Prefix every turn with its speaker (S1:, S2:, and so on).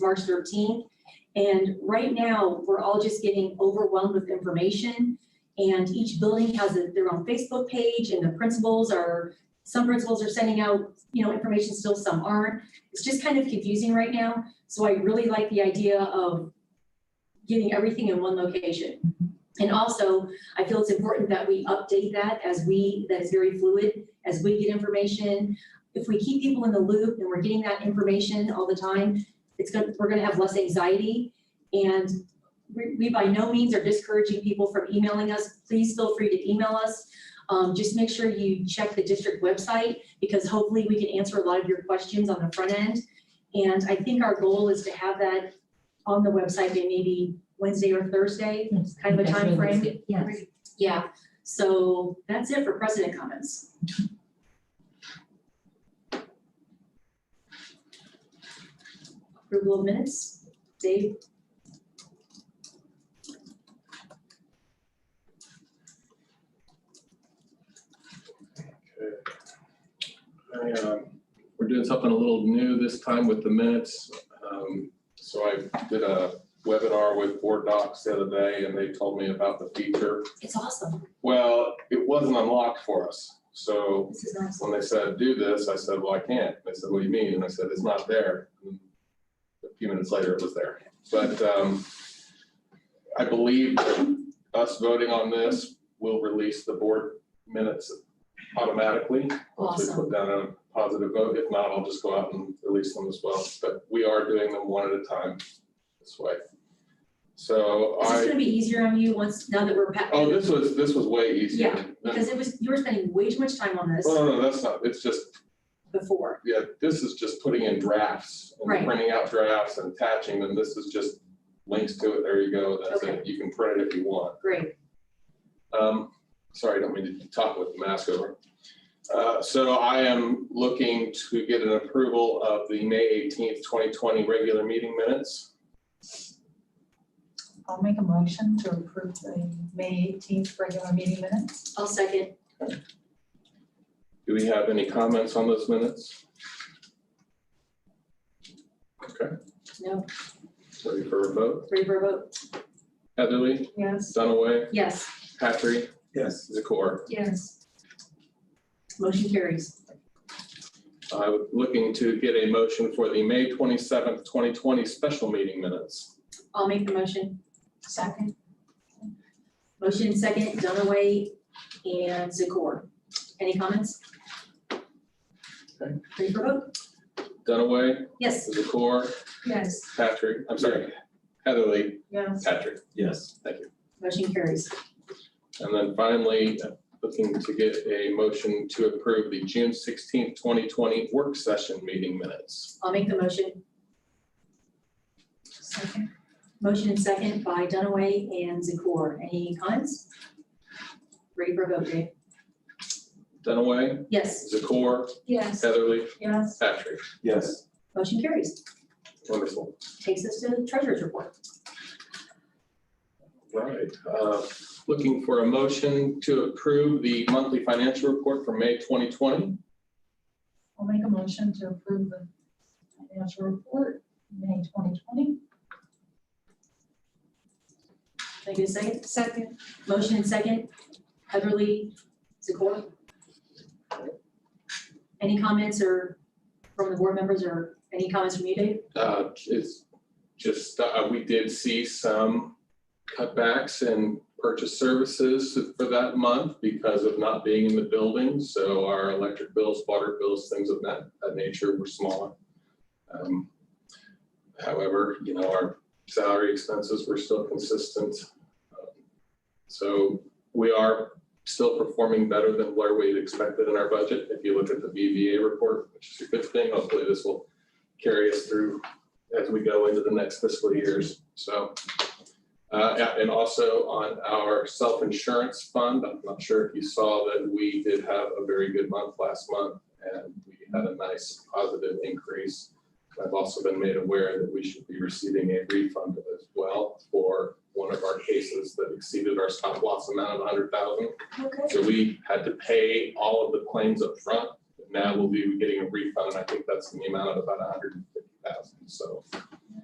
S1: March thirteenth. And right now, we're all just getting overwhelmed with information. And each building has a- their own Facebook page and the principals are, some principals are sending out, you know, information still, some aren't. It's just kind of confusing right now. So I really like the idea of getting everything in one location. And also, I feel it's important that we update that as we, that is very fluid, as we get information. If we keep people in the loop and we're getting that information all the time, it's gonna, we're gonna have less anxiety. And we, we by no means are discouraging people from emailing us. Please feel free to email us. Um, just make sure you check the district website because hopefully we can answer a lot of your questions on the front end. And I think our goal is to have that on the website by maybe Wednesday or Thursday,
S2: Yes,
S1: kind of a
S2: that's really
S1: timeframe.
S2: good. Yes.
S1: Yeah, so that's it for president comments. Approval of minutes, Dave?
S3: I, um, We're doing something a little new this time with the minutes. Um, So I did a webinar with Board Docs the other day and they told me about the feature.
S1: It's awesome,
S3: Well, it wasn't unlocked for us. So
S1: this is awesome.
S3: when they said, do this, I said, well, I can't. They said, what do you mean? And I said, it's not there. And A few minutes later, it was there. But um, I believe that us voting on this will release the board minutes automatically. Once we
S1: Awesome.
S3: put down a positive vote. If not, I'll just go out and release them as well. But we are doing them one at a time this way. So
S1: Is this
S3: I,
S1: gonna be easier on you once, now that we're
S3: oh,
S1: past,
S3: this was, this was way easier.
S1: Yeah,
S3: than-
S1: because it was, you were spending way too much time on this
S3: Well, no, no, that's not, it's just
S1: before.
S3: yeah, this is just putting in drafts
S1: Right.
S3: and printing out drafts and attaching them. This is just links to it. There you go. That's
S1: Okay.
S3: it. You can print it if you want.
S1: Great,
S3: Um, sorry, I don't mean to talk with the mask over. Uh, so I am looking to get an approval of the May eighteenth, twenty twenty regular meeting minutes.
S2: I'll make a motion to approve the May eighteenth regular meeting minutes.
S1: I'll second.
S3: Do we have any comments on those minutes? Okay,
S1: No,
S3: ready for a vote?
S1: three for a vote.
S3: Heatherly,
S2: Yes.
S3: Dunaway,
S1: Yes,
S3: Patrick,
S4: Yes.
S3: Zakor.
S2: Yes.
S1: motion carries.
S3: I was looking to get a motion for the May twenty-seventh, twenty twenty special meeting minutes.
S1: I'll make the motion.
S2: Second.
S1: Motion second, Dunaway and Zakor. Any comments?
S3: Okay.
S1: Ready for vote?
S3: Dunaway,
S1: Yes,
S3: Zakor,
S2: Yes.
S3: Patrick, I'm sorry, Heatherly,
S2: Yes.
S3: Patrick,
S4: Yes.
S3: thank you.
S1: motion carries.
S3: And then finally, uh, looking to get a motion to approve the June sixteenth, twenty twenty work session meeting minutes.
S1: I'll make the motion.
S2: Second.
S1: Motion and second by Dunaway and Zakor. Any comments? Ready for a vote, Dave?
S3: Dunaway,
S1: Yes,
S3: Zakor,
S2: Yes.
S3: Heatherly,
S2: Yes.
S3: Patrick,
S4: Yes.
S1: motion carries.
S3: wonderful.
S1: Takes us to the treasurer's report.
S3: Right, uh, looking for a motion to approve the monthly financial report for May twenty twenty.
S2: I'll make a motion to approve the financial report, May twenty twenty.
S1: Can I get a second?
S2: Second.
S1: Motion and second, Heatherly, Zakor. Any comments or from the board members or any comments from you, Dave?
S3: Uh, it's just, uh, we did see some cutbacks in purchase services for that month because of not being in the building. So our electric bills, water bills, things of that, that nature were smaller. Um, However, you know, our salary expenses were still consistent. Um, So we are still performing better than where we had expected in our budget. If you look at the BVA report, which is a good thing, hopefully this will carry us through as we go into the next fiscal years. So, uh, yeah, and also on our self-insurance fund, I'm not sure if you saw that we did have a very good month last month and we had a nice positive increase. I've also been made aware that we should be receiving a refund as well for one of our cases that exceeded our stop loss amount of hundred thousand.
S1: Okay.
S3: So we had to pay all of the claims up front. Now we'll be getting a refund. I think that's in the amount of about $150,000. So